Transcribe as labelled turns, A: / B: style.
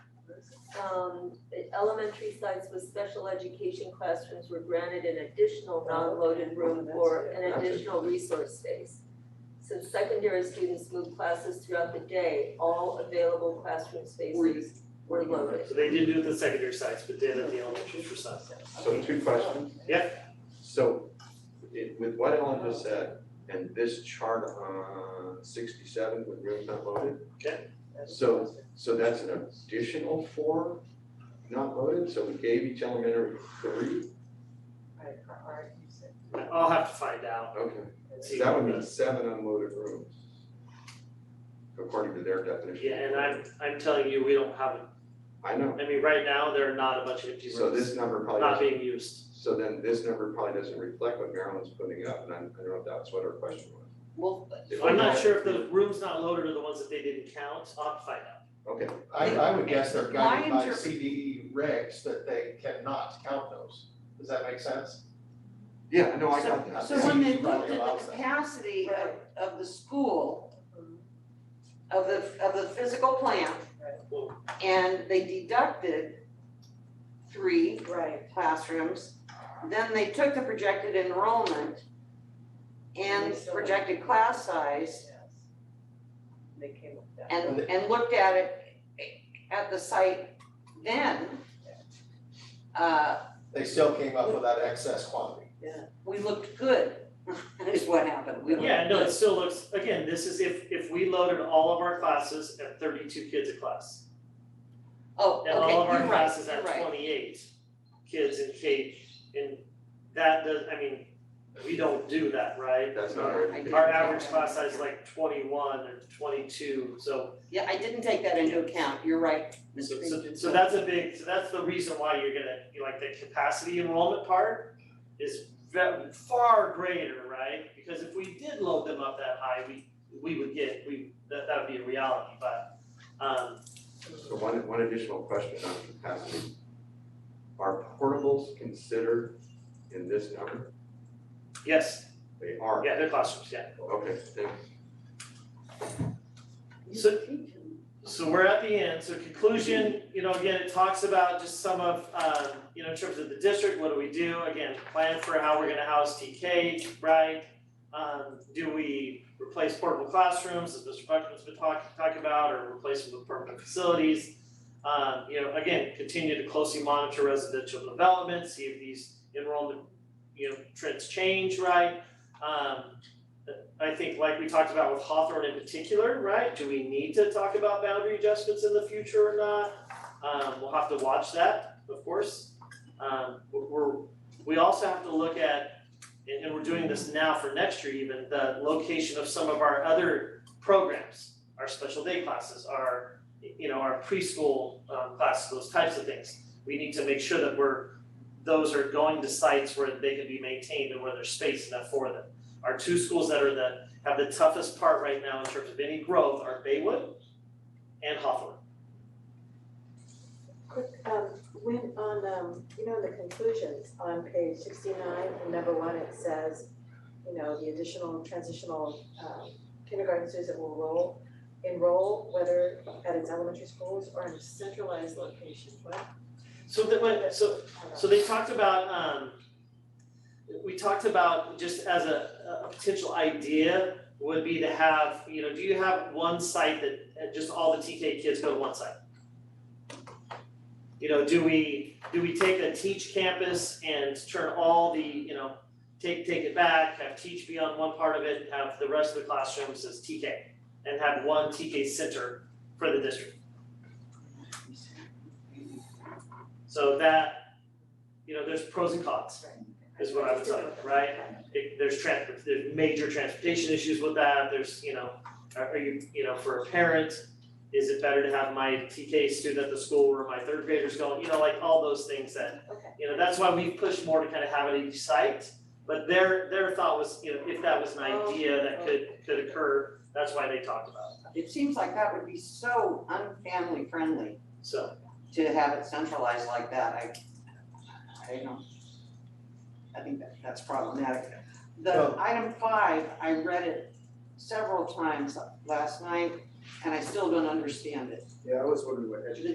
A: um, the elementary sites with special education classrooms were granted an additional non-loaded room or an additional resource space. Since secondary students moved classes throughout the day, all available classroom spaces were loaded.
B: So they did do it at the secondary sites, but did at the elementary for some.
C: So two questions. So it, with what Ellen just said and this chart on sixty-seven with rooms not loaded, So- so that's an additional four not loaded, so we gave each elementary three?
D: Right, for art, you said.
B: I'll have to find out.
C: Okay,
B: and
C: so
B: see
C: that would
B: what
C: mean seven unloaded rooms. According to their
B: the-
C: definition.
B: Yeah, and I'm, I'm telling you, we don't have,
C: I know,
B: I mean, right now, there are not a bunch of empty
C: so
B: rooms,
C: this number probably
B: not
C: doesn't,
B: being used.
C: so then this number probably doesn't reflect what Maryland's putting up, and I'm, I don't know if that's what her question was.
D: Well,
C: If
B: I'm
C: we
B: not
C: had-
B: sure if the rooms not loaded are the ones that they didn't count, I'll have to find out.
C: Okay,
E: I, I would guess they're guided
D: My
E: by
D: interpre-
E: CDE regs that they cannot count those. Does that make sense?
C: yeah, no, I got that.
D: So when they
E: Yeah,
D: looked
E: probably
D: at
E: allows
D: the
E: that.
D: capacity of, of the school, of the, of the physical plant,
B: Well,
D: and they deducted three
F: Right.
D: classrooms, then they took the projected enrollment and projected class size
F: They came up with that.
D: and, and looked at it, at the site then. Uh,
E: They still came up with that excess quantity.
D: we looked good, is what happened, we looked
B: Yeah, no,
D: good.
B: it still looks, again, this is if, if we loaded all of our classes at thirty-two kids a class.
D: Oh, okay,
B: And
D: you're right,
B: all of our classes
D: you're
B: at
D: right.
B: twenty-eight kids in K, and that does, I mean, we don't do that, right?
C: That's not
B: Our-
C: our.
D: I-
B: Our average class size is like twenty-one or twenty-two, so,
D: Yeah, I didn't take that into account, you're right,
B: so,
D: Mr.
B: so,
D: Pinkett.
B: so that's a big, so that's the reason why you're gonna, you like, the capacity enrollment part is ve- far greater, right? Because if we did load them up that high, we, we would get, we, that, that would be a reality, but, um,
C: So one, one additional question on capacity. Are portables considered in this number?
B: yes,
C: They are.
B: yeah, they're classrooms, yeah.
C: Okay, thanks.
B: So, so we're at the end, so conclusion, you know, again, it talks about just some of, um, you know, in terms of the district, what do we do? Again, plan for how we're gonna house TK, right? Um, do we replace portable classrooms, as Mr. Buckman's been talking, talking about, or replace them with permanent facilities? Um, you know, again, continue to closely monitor residential development, see if these enrollment, you know, trends change, right? Um, I think like we talked about with Hawthorne in particular, right? Do we need to talk about boundary adjustments in the future or not? Um, we'll have to watch that, of course. Um, we're- we're, we also have to look at, and, and we're doing this now for next year even, the location of some of our other programs, our special day classes, our, you know, our preschool, um, classes, those types of things. We need to make sure that we're, those are going to sites where they can be maintained and where there's space enough for them our two schools that are the, have the toughest part right now in terms of any growth are Baywood and Hawthorne.
F: Quick, um, when on, um, you know, in the conclusions on page sixty-nine, in number one, it says, you know, the additional transitional, um, kindergarten students that will roll, enroll, whether at its elementary schools or in centralized locations, what?
B: So that went, so, so they talked about, um, we talked about just as a, a potential idea would be to have, you know, do you have one site that, uh, just all the TK kids go to one site? You know, do we, do we take a teach campus and turn all the, you know, take, take it back, have teach be on one part of it, and have the rest of the classrooms as TK? And have one TK center for the district? So that, you know, there's pros and cons, is what I would tell you, right? It- there's trans, there's major transportation issues with that, there's, you know, are, are you, you know, for a parent, is it better to have my TK student at the school where my third grader's going, you know, like all those things that,
F: Okay.
B: you know, that's why we push more to kind of have it at each site. But their, their thought was, you know, if that was an idea that could, could occur, that's why they talked about it,
D: It seems like that would be so unfamily friendly
B: so.
D: to have it centralized like that, I, I don't know. I think that, that's problematic. The
E: Well-
D: item five, I read it several times last night, and I still don't understand it.
G: Yeah, I was wondering what education